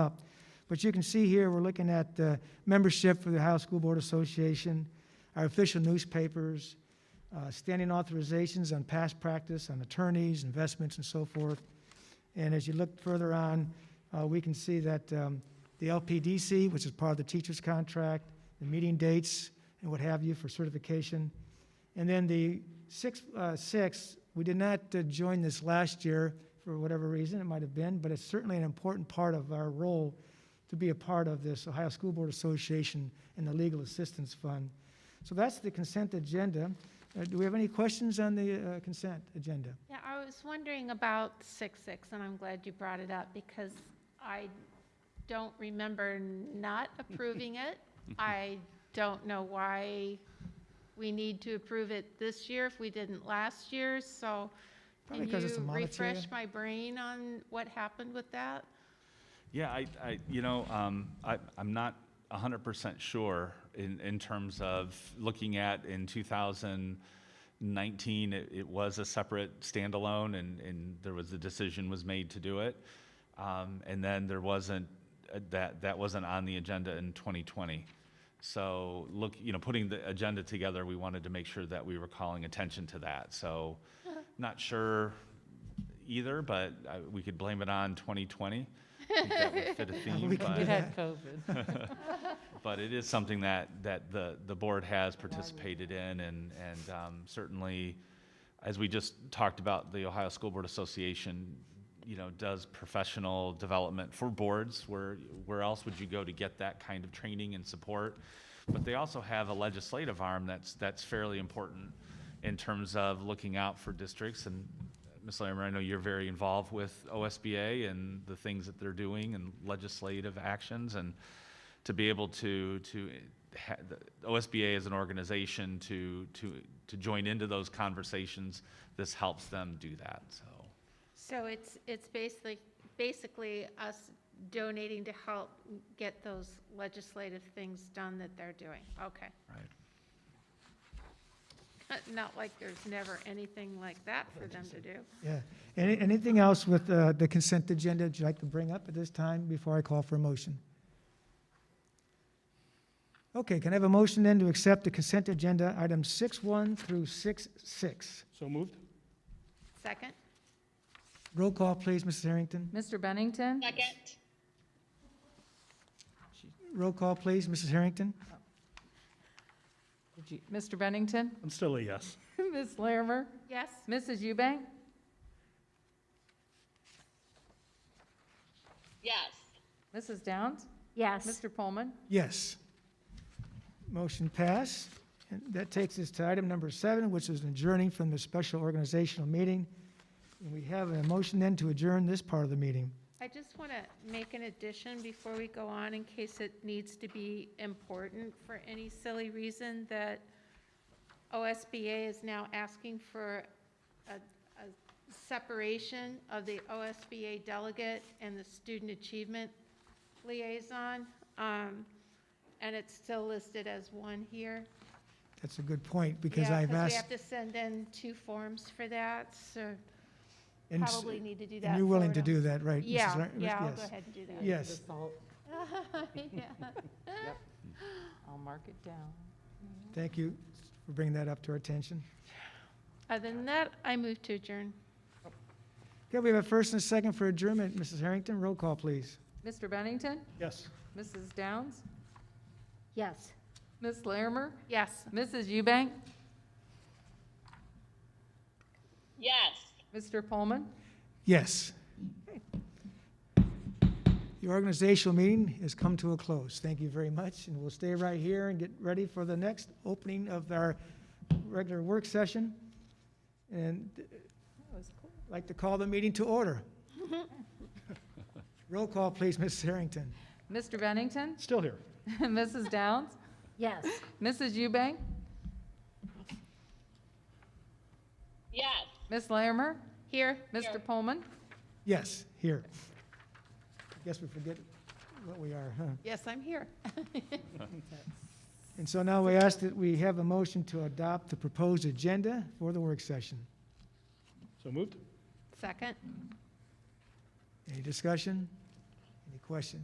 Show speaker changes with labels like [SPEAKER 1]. [SPEAKER 1] up. But you can see here, we're looking at uh, membership for the Ohio School Board Association, our official newspapers, uh, standing authorizations on past practice, on attorneys, investments, and so forth. And as you look further on, uh, we can see that um, the LPDC, which is part of the teacher's contract, the meeting dates, and what have you for certification. And then the six, uh, six, we did not uh, join this last year for whatever reason it might have been, but it's certainly an important part of our role to be a part of this Ohio School Board Association and the Legal Assistance Fund. So that's the consent agenda. Uh, do we have any questions on the uh, consent agenda?
[SPEAKER 2] Yeah, I was wondering about six six, and I'm glad you brought it up because I don't remember not approving it. I don't know why we need to approve it this year if we didn't last year, so
[SPEAKER 1] Probably
[SPEAKER 2] can
[SPEAKER 1] 'cause it's a
[SPEAKER 2] you
[SPEAKER 1] monetary-
[SPEAKER 2] refresh my brain on what happened with that?
[SPEAKER 3] Yeah, I, I you know, um, I, I'm not 100% sure in, in terms of looking at in 2019, it, it was a separate standalone and, and there was a decision was made to do it. Um, and then there wasn't, uh, that, that wasn't on the agenda in 2020. So look, you know, putting the agenda together, we wanted to make sure that we were calling attention to that. So not sure either, but uh, we could blame it on 2020. I think that would fit a theme,
[SPEAKER 1] We can do
[SPEAKER 3] but-
[SPEAKER 4] It had COVID.
[SPEAKER 3] But it is something that, that the, the board has participated in and, and um, certainly, as we just talked about, the Ohio School Board Association, you know, does professional development for boards. Where, where else would you go to get that kind of training and support? But they also have a legislative arm that's, that's fairly important in terms of looking out for districts. And Ms. Larimer, I know you're very involved with OSBA and the things that they're doing and legislative actions. And to be able to, to, ha- the OSBA as an organization to, to, to join into those conversations, this helps them do that, so.
[SPEAKER 2] So it's, it's basically, basically us donating to help get those legislative things done that they're doing, okay.
[SPEAKER 3] Right.
[SPEAKER 2] Not like there's never anything like that for them to do.
[SPEAKER 1] Yeah. Any, anything else with uh, the consent agenda that you'd like to bring up at this time before I call for a motion? Okay, can I have a motion then to accept the consent agenda, items six one through six six?
[SPEAKER 5] So moved?
[SPEAKER 2] Second?
[SPEAKER 1] Roll call, please, Mrs. Harrington.
[SPEAKER 4] Mr. Bennington?
[SPEAKER 6] Second,
[SPEAKER 1] Roll call, please, Mrs. Harrington.
[SPEAKER 4] Did you- Mr. Bennington?
[SPEAKER 5] I'm still a yes.
[SPEAKER 4] Ms. Larimer?
[SPEAKER 2] Yes?
[SPEAKER 4] Mrs. Eubank?
[SPEAKER 6] yes.
[SPEAKER 4] Mrs. Downs?
[SPEAKER 6] Yes.
[SPEAKER 4] Mr. Pullman?
[SPEAKER 1] Yes. Motion passed. And that takes us to item number seven, which is adjourning from the special organizational meeting. And we have a motion then to adjourn this part of the meeting.
[SPEAKER 2] I just want to make an addition before we go on in case it needs to be important for any silly reason that OSBA is now asking for a, a separation of the OSBA delegate and the student achievement liaison. Um, and it's still listed as one here.
[SPEAKER 1] That's a good point, because
[SPEAKER 2] Yeah,
[SPEAKER 1] I've
[SPEAKER 2] We
[SPEAKER 1] asked.
[SPEAKER 2] have to send in two forms for that, so
[SPEAKER 1] and s-
[SPEAKER 2] probably need to do
[SPEAKER 1] and
[SPEAKER 2] that.
[SPEAKER 1] you're willing
[SPEAKER 2] forward
[SPEAKER 1] to do
[SPEAKER 2] on-
[SPEAKER 1] that, right? Mrs.
[SPEAKER 2] Yeah,
[SPEAKER 1] Lar-
[SPEAKER 2] yeah, I'll go
[SPEAKER 1] yes.
[SPEAKER 2] ahead and do that.
[SPEAKER 1] Yes.
[SPEAKER 2] Yeah.
[SPEAKER 4] I'll mark it down.
[SPEAKER 1] Thank you for bringing that up to our attention.
[SPEAKER 2] Other than that, I move to adjourn.
[SPEAKER 1] Okay, we have a first and a second for adjournment. Mrs. Harrington, roll call, please.
[SPEAKER 4] Mr. Bennington?
[SPEAKER 5] Yes.
[SPEAKER 4] Mrs. Downs?
[SPEAKER 6] Yes.
[SPEAKER 4] Ms. Larimer?
[SPEAKER 2] Yes.
[SPEAKER 4] Mrs. Eubank?
[SPEAKER 6] Yes.
[SPEAKER 4] Mr. Pullman?
[SPEAKER 1] Yes. The organizational meeting has come to a close. Thank you very much, and we'll stay right here and get ready for the next opening of our regular work session. And uh, I'd like to call the meeting to order. Roll call, please, Mrs. Harrington.
[SPEAKER 4] Mr. Bennington?
[SPEAKER 5] Still here.
[SPEAKER 4] Mrs. Downs?
[SPEAKER 6] Yes.
[SPEAKER 4] Mrs. Eubank?
[SPEAKER 6] Yes.
[SPEAKER 4] Ms. Larimer?
[SPEAKER 2] Here?
[SPEAKER 4] Mr. Pullman?
[SPEAKER 1] Yes, here. Guess we forget what we are, huh?
[SPEAKER 2] Yes, I'm here.
[SPEAKER 1] And so now we ask that we have a motion to adopt the proposed agenda for the work session.
[SPEAKER 5] So moved?
[SPEAKER 2] Second?
[SPEAKER 1] Any discussion? Any questions?